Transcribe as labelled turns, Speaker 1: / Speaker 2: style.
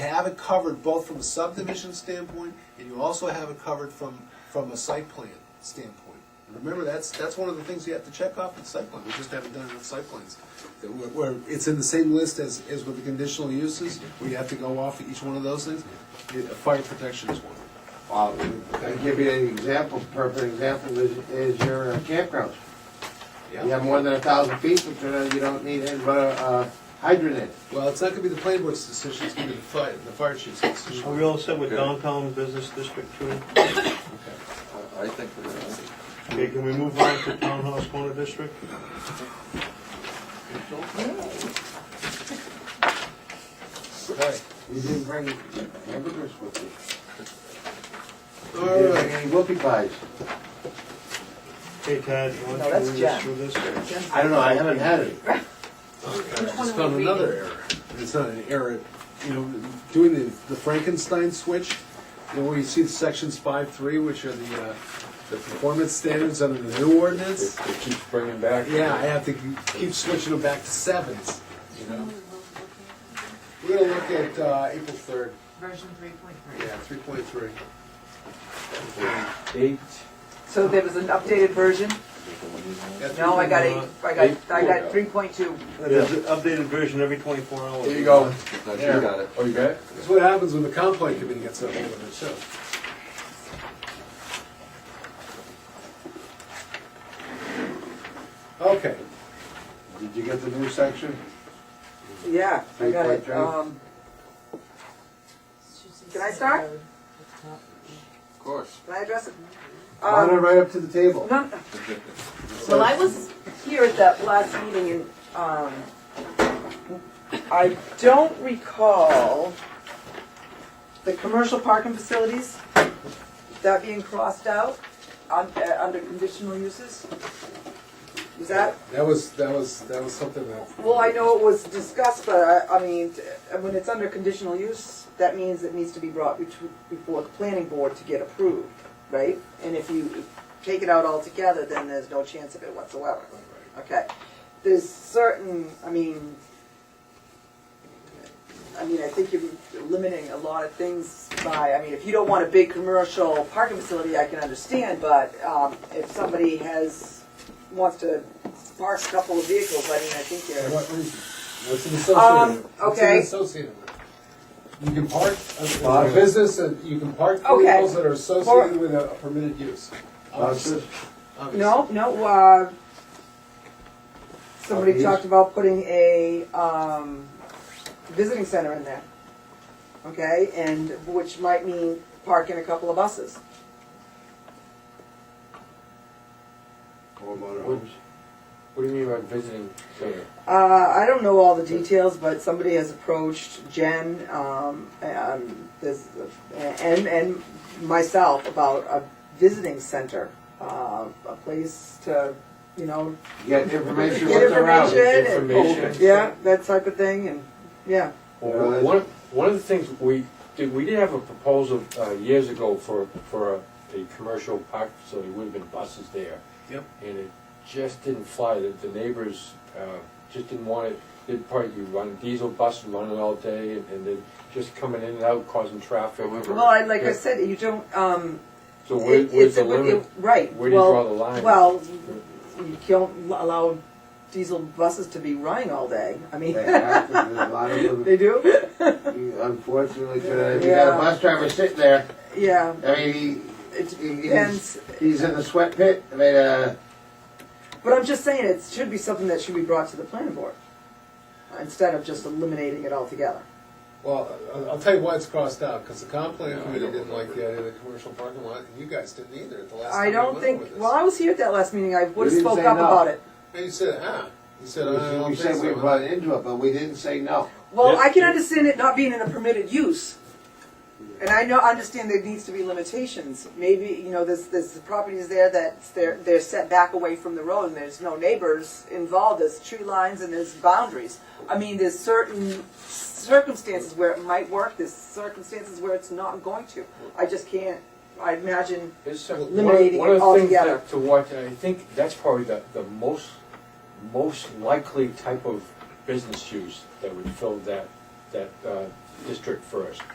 Speaker 1: have it covered both from a subdivision standpoint, and you also have it covered from, from a site plan standpoint. And Remember, that's, that's one of the things you have to check off with site plan, we just haven't done enough site plans. That Where, where it's in the same list as, as with the conditional uses, where you have to go off each one of those things, Yeah, fire protection is one.
Speaker 2: Well, I give you an example, perfect example is, is your uh, campgrounds. You have more than a thousand people, so then you don't need any but a uh, hydrant in. it.
Speaker 1: Well, it's not gonna be the planning board's decision, it's gonna be the fire, the fire chief's decision.
Speaker 3: Are we all set with downtown business district two?
Speaker 4: I think we're gonna,
Speaker 3: Okay, can we move on to townhouse corner district?
Speaker 1: Okay.
Speaker 2: You didn't bring hamburgers with you. You
Speaker 1: All
Speaker 2: didn't bring
Speaker 1: right.
Speaker 2: any whoopie pies.
Speaker 3: Hey Tad, you want
Speaker 5: No,
Speaker 3: to
Speaker 5: that's
Speaker 3: lead
Speaker 5: Jack.
Speaker 3: us through this?
Speaker 2: I don't know, I haven't had it.
Speaker 1: I
Speaker 5: one
Speaker 1: just
Speaker 5: are
Speaker 1: found
Speaker 5: we
Speaker 1: another error. It's not an error, you know, doing the, the Frankenstein switch, you know, where you see the sections five, three, which are the, uh, the performance standards under the new ordinance.
Speaker 4: it keeps bringing back.
Speaker 1: Yeah, I have to keep switching them back to sevens, you know? We're gonna look at, uh, April third,
Speaker 5: Version three point three.
Speaker 1: yeah, three point three.
Speaker 4: Eight.
Speaker 5: So there was an updated version? No, I got eight, I got, I got three point two.
Speaker 3: There's an updated version every twenty-four hours.
Speaker 2: There you go.
Speaker 4: No, she got it. Oh, you got it?
Speaker 1: That's what happens when the complaint committee gets up over the show. Okay,
Speaker 2: Did you get the new section?
Speaker 5: Yeah, I got it.
Speaker 2: 3.2.
Speaker 5: Um, Can I start?
Speaker 4: Of course.
Speaker 5: can I address it?
Speaker 2: Run it
Speaker 5: Um,
Speaker 2: right up to the table.
Speaker 5: no, Well, I was here at that last meeting and, um, I don't recall the commercial parking facilities, that being crossed out on, uh, under conditional uses. Was that?
Speaker 1: that was, that was, that was something that.
Speaker 5: Well, I know it was discussed, but I, I mean, t- when it's under conditional use, that means it needs to be brought betw- before the planning board to get approved, right? And if you take it out altogether, then there's no chance of it whatsoever. Okay, there's certain, I mean, I mean, I think you're limiting a lot of things by, I mean, if you don't want a big commercial parking facility, I can understand, but, um, if somebody has, wants to park a couple of vehicles, I mean, I think you're.
Speaker 1: What reason? What's it
Speaker 5: Um,
Speaker 1: associated with? What's it
Speaker 5: okay.
Speaker 1: associated with? You can park,
Speaker 2: Lot
Speaker 1: a
Speaker 2: of-
Speaker 1: business, and you can park
Speaker 5: Okay.
Speaker 1: vehicles that are associated with a permitted use.
Speaker 2: Buses?
Speaker 1: Obviously.
Speaker 5: No, no, uh, somebody
Speaker 2: Obvious.
Speaker 5: talked about putting a, um, visiting center in there. Okay, and which might mean parking a couple of buses.
Speaker 2: Or motorhomes.
Speaker 4: What do you mean by visiting center?
Speaker 5: Uh, I don't know all the details, but somebody has approached Jen, um, um, this, and, and myself about a visiting center. Uh, a place to, you know,
Speaker 2: Get information
Speaker 5: Get
Speaker 2: what's around.
Speaker 5: information. Good.
Speaker 4: Information.
Speaker 5: yeah, that type of thing, and, yeah.
Speaker 4: Well, One, one of the things we, did, we did have a proposal uh, years ago for, for a, a commercial park facility, would have been buses there.
Speaker 1: Yep.
Speaker 4: And it just didn't fly, the, the neighbors, uh, just didn't want it, they'd probably, you run diesel bus and running all day, and- and then just coming in and out causing traffic.
Speaker 5: Well, I, like I said, you don't, um,
Speaker 4: So where,
Speaker 5: It-
Speaker 4: where's
Speaker 5: it's a-
Speaker 4: the limit?
Speaker 5: it- Right.
Speaker 4: Where do you
Speaker 5: well-
Speaker 4: draw the line?
Speaker 5: Well, you don't allow diesel buses to be running all day. I mean,
Speaker 2: They have to, there's a lot of them.
Speaker 5: they do?
Speaker 2: You- Unfortunately, today, if you got a bus driver sitting there,
Speaker 5: Yeah,
Speaker 2: I mean, he,
Speaker 5: it
Speaker 2: he- he's,
Speaker 5: depends.
Speaker 2: he's in the sweat pit, I mean, uh,
Speaker 5: But I'm just saying, it should be something that should be brought to the planning board instead of just eliminating it altogether.
Speaker 1: Well, I'll, I'll tell you why it's crossed out, because the complaint
Speaker 4: Yeah, I
Speaker 1: committee
Speaker 4: don't
Speaker 1: didn't like the
Speaker 4: remember.
Speaker 1: idea of the commercial parking lot, and you guys didn't either at the last time
Speaker 5: I
Speaker 1: we
Speaker 5: don't
Speaker 1: went
Speaker 5: think,
Speaker 1: over this.
Speaker 5: well, I was here at that last meeting, I would have
Speaker 2: You didn't
Speaker 5: spoke
Speaker 2: say
Speaker 5: up
Speaker 2: no.
Speaker 5: about it.
Speaker 1: And you said, ah, you said, I
Speaker 2: we
Speaker 1: don't
Speaker 2: said
Speaker 1: think
Speaker 2: we
Speaker 1: so.
Speaker 2: run into it, but we didn't say no.
Speaker 5: Well,
Speaker 4: Yeah.
Speaker 5: I can understand it not being in a permitted use. And I know, understand there needs to be limitations. Maybe, you know, there's, there's properties there that they're, they're set back away from the road and there's no neighbors involved, there's tree lines and there's boundaries. I mean, there's certain circumstances where it might work, there's circumstances where it's not going to. I just can't, I imagine,
Speaker 4: It's some-
Speaker 5: Eliminating
Speaker 4: one of-
Speaker 5: it
Speaker 4: One
Speaker 5: altogether.
Speaker 4: of the things that- to watch, and I think that's probably the, the most, most likely type of business use that would fill that, that uh, district first.